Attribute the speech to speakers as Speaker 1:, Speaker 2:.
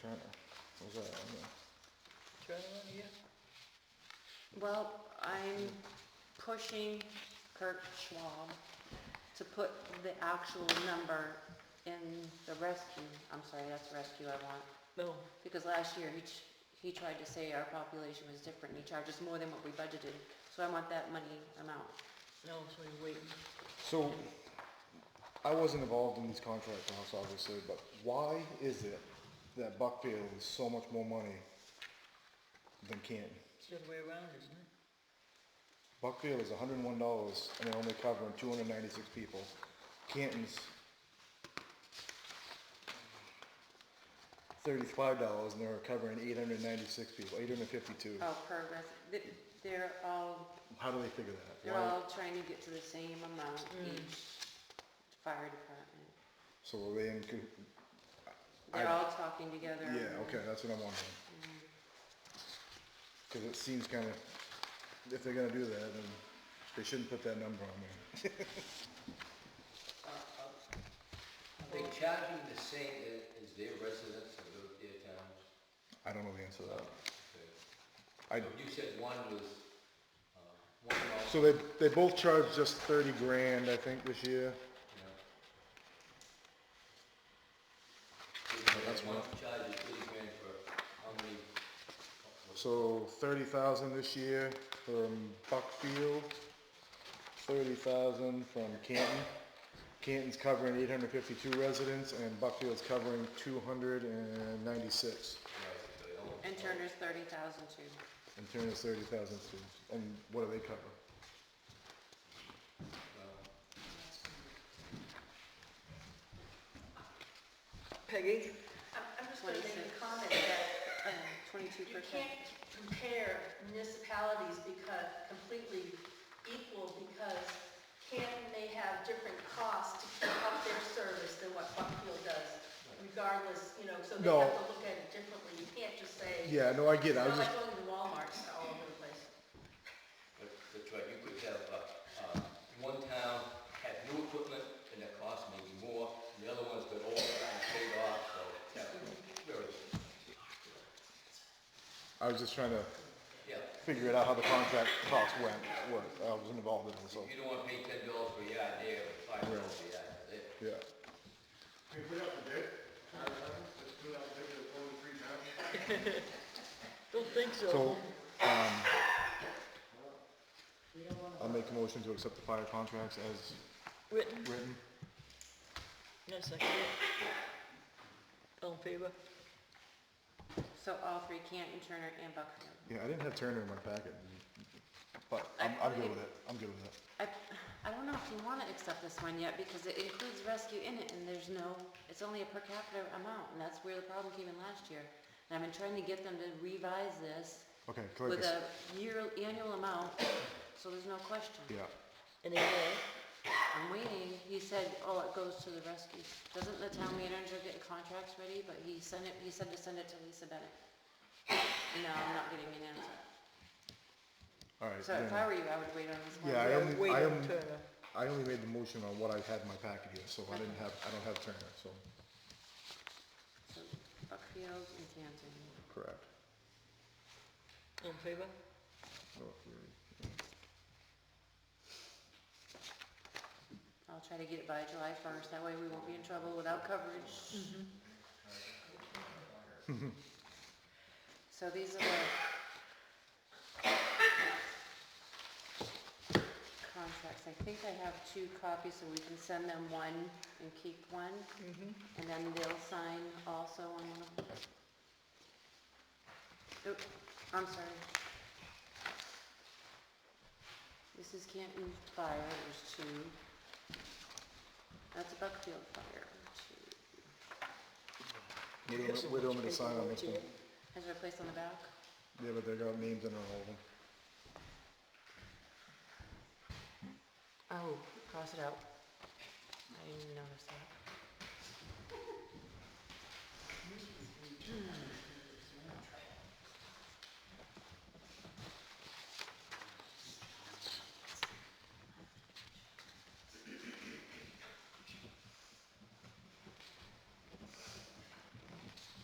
Speaker 1: Turner. What was that? I don't know.
Speaker 2: Well, I'm pushing Kurt Schwab to put the actual number in the rescue, I'm sorry, that's rescue I want.
Speaker 3: No,
Speaker 2: Because last year, he, ch- he tried to say our population was different, and he charged us more than what we budgeted, so I want that money amount.
Speaker 3: no, so you're waiting.
Speaker 1: So, I wasn't involved in these contract talks, obviously, but why is it that Buckfield is so much more money than Canton?
Speaker 3: It's the other way around, isn't it?
Speaker 1: Buckfield is hundred and one dollars and they're only covering two hundred and ninety-six people. Canton's thirty-five dollars and they're covering eight hundred and ninety-six people, eight hundred and fifty-two.
Speaker 2: Oh, per res, th- they're all,
Speaker 1: How do they figure that?
Speaker 2: they're
Speaker 1: Why-
Speaker 2: all trying to get to the same amount each fire department.
Speaker 1: So were they in, co-
Speaker 2: They're
Speaker 1: I-
Speaker 2: all talking together.
Speaker 1: Yeah, okay, that's what I'm wondering. Cause it seems kinda, if they're gonna do that, then they shouldn't put that number on there.
Speaker 4: Are they charging the same as, as their uh, residents of those their towns?
Speaker 1: I don't know the answer to that.
Speaker 4: Okay.
Speaker 1: I-
Speaker 4: You said one was, uh, one was,
Speaker 1: So they, they both charged just thirty grand, I think, this year.
Speaker 4: you
Speaker 1: that's
Speaker 4: One
Speaker 1: one.
Speaker 4: charges thirty grand for how many?
Speaker 1: So thirty thousand this year from Buckfield, thirty thousand from Canton. Canton's covering eight hundred fifty-two residents and Buckfield's covering two hundred and ninety-six.
Speaker 2: And Turner's thirty thousand too.
Speaker 1: And Turner's thirty thousand too. And what do they cover?
Speaker 4: uh,
Speaker 3: Peggy?
Speaker 5: I'm, I'm just gonna make a
Speaker 2: Twenty-six.
Speaker 5: comment that
Speaker 2: Uh, Twenty-two
Speaker 5: you
Speaker 2: percent.
Speaker 5: can't compare municipalities because, completely equal because Canton may have different costs to keep up their service than what Buckfield does, regardless, you know, so they
Speaker 1: No.
Speaker 5: have to look at it differently. You can't just say, it's
Speaker 1: Yeah, no, I get it. I was
Speaker 5: not
Speaker 1: just,
Speaker 5: like going to Walmart, it's all over the place.
Speaker 4: But, that's right, you could have, uh, uh, one town had new equipment and that cost maybe more, and the other one's got old and paid off, so that's very,
Speaker 1: I was just trying to
Speaker 4: yeah.
Speaker 1: figure it out how the contract costs went, what, I wasn't involved in it, so,
Speaker 4: You don't wanna pay ten dollars for a yard there, or five dollars for a yard there.
Speaker 1: yeah.
Speaker 6: Can we put out the bid? Let's put out the bid for only three times.
Speaker 3: Don't think
Speaker 1: So,
Speaker 3: so.
Speaker 1: um, I'll make a motion to accept the fire contracts as
Speaker 3: Written,
Speaker 1: written.
Speaker 3: no, second it. All in favor?
Speaker 2: So all three, Canton, Turner, and Buckfield.
Speaker 1: Yeah, I didn't have Turner in my packet, but I'm, I'm good with it, I'm good with it.
Speaker 2: I, I don't know if you wanna accept this one yet, because it includes rescue in it, and there's no, it's only a per capita amount, and that's where the problem came in last year. And I've been trying to get them to revise this
Speaker 1: Okay, click
Speaker 2: with
Speaker 1: this.
Speaker 2: a year, annual amount, so there's no question.
Speaker 1: Yeah,
Speaker 3: And then,
Speaker 2: I'm waiting, he said, oh, it goes to the rescue. Doesn't the town manager get contracts ready, but he sent it, he said to send it to Lisa Bennett. No, I'm not getting an answer.
Speaker 1: alright.
Speaker 2: So if
Speaker 1: then.
Speaker 2: I were you, I would wait on this one.
Speaker 1: Yeah, I
Speaker 3: we're
Speaker 1: only, I
Speaker 3: waiting on
Speaker 1: only,
Speaker 3: Turner.
Speaker 1: I only made the motion on what I had in my packet here, so I didn't have, I don't have Turner, so,
Speaker 2: So Buckfield and Canton.
Speaker 1: correct.
Speaker 3: All in favor?
Speaker 1: So if we-
Speaker 2: I'll try to get it by July first, that way we won't be in trouble without coverage. So these are the contracts, I think I have two copies, so we can send them one and keep one,
Speaker 3: Mm-hmm.
Speaker 2: and then they'll sign also on one of them. Oop, Oh, I'm sorry. This is Canton Fire, there's two. That's Buckfield Fire, two.
Speaker 1: What do you want- What do you want me to sign on this one?
Speaker 2: Is there a place on the back?
Speaker 1: Yeah, but they got names in all of them.
Speaker 2: Oh, cross it out. I didn't notice that.